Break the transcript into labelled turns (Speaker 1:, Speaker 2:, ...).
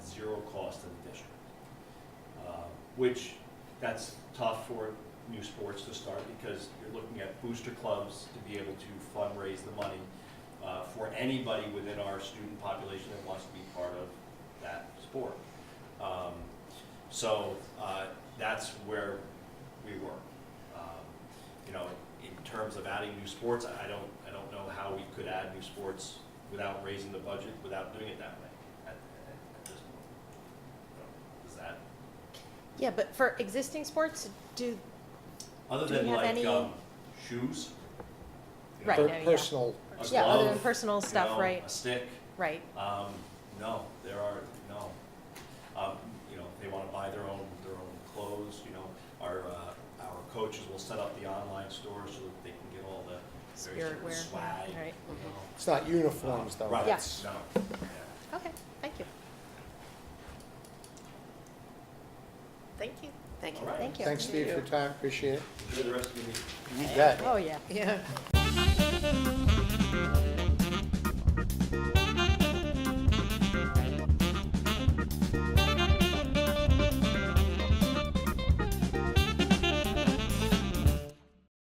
Speaker 1: zero cost to the district. Uh, Which, that's tough for new sports to start because you're looking at booster clubs to be able to fundraise the money uh, for anybody within our student population that wants to be part of that sport. Um, So uh, that's where we were. Um, You know, in terms of adding new sports, I I don't, I don't know how we could add new sports without raising the budget, without doing it that way at at this point. So, Is that,
Speaker 2: Yeah, but for existing sports, do,
Speaker 1: other
Speaker 2: Do we
Speaker 1: than
Speaker 2: have
Speaker 1: like
Speaker 2: any-
Speaker 1: um, shoes, you know,
Speaker 2: Right,
Speaker 1: a
Speaker 3: Per-
Speaker 2: no, yeah.
Speaker 3: Personal,
Speaker 1: glove,
Speaker 2: yeah, other than
Speaker 1: you
Speaker 2: personal
Speaker 1: know,
Speaker 2: stuff, right,
Speaker 1: A stick.
Speaker 2: right,
Speaker 1: Um, no, there are, no. Um, you know, they wanna buy their own, their own clothes, you know, our, uh, our coaches will set up the online store so that they can get all the various
Speaker 2: spirit
Speaker 1: different
Speaker 2: wear,
Speaker 1: swag, you
Speaker 2: right,
Speaker 1: know.
Speaker 3: it's not uniforms
Speaker 1: Um,
Speaker 3: though.
Speaker 1: Right,
Speaker 2: Yes.
Speaker 1: no, yeah.
Speaker 2: okay, thank you.
Speaker 4: Thank you.
Speaker 5: Thank you.
Speaker 1: All right.
Speaker 2: Thank you.
Speaker 3: Thanks, Steve, for your time, appreciate it.
Speaker 1: Enjoy the rest of your meeting.
Speaker 3: You bet.
Speaker 2: Oh, yeah.
Speaker 5: Yeah.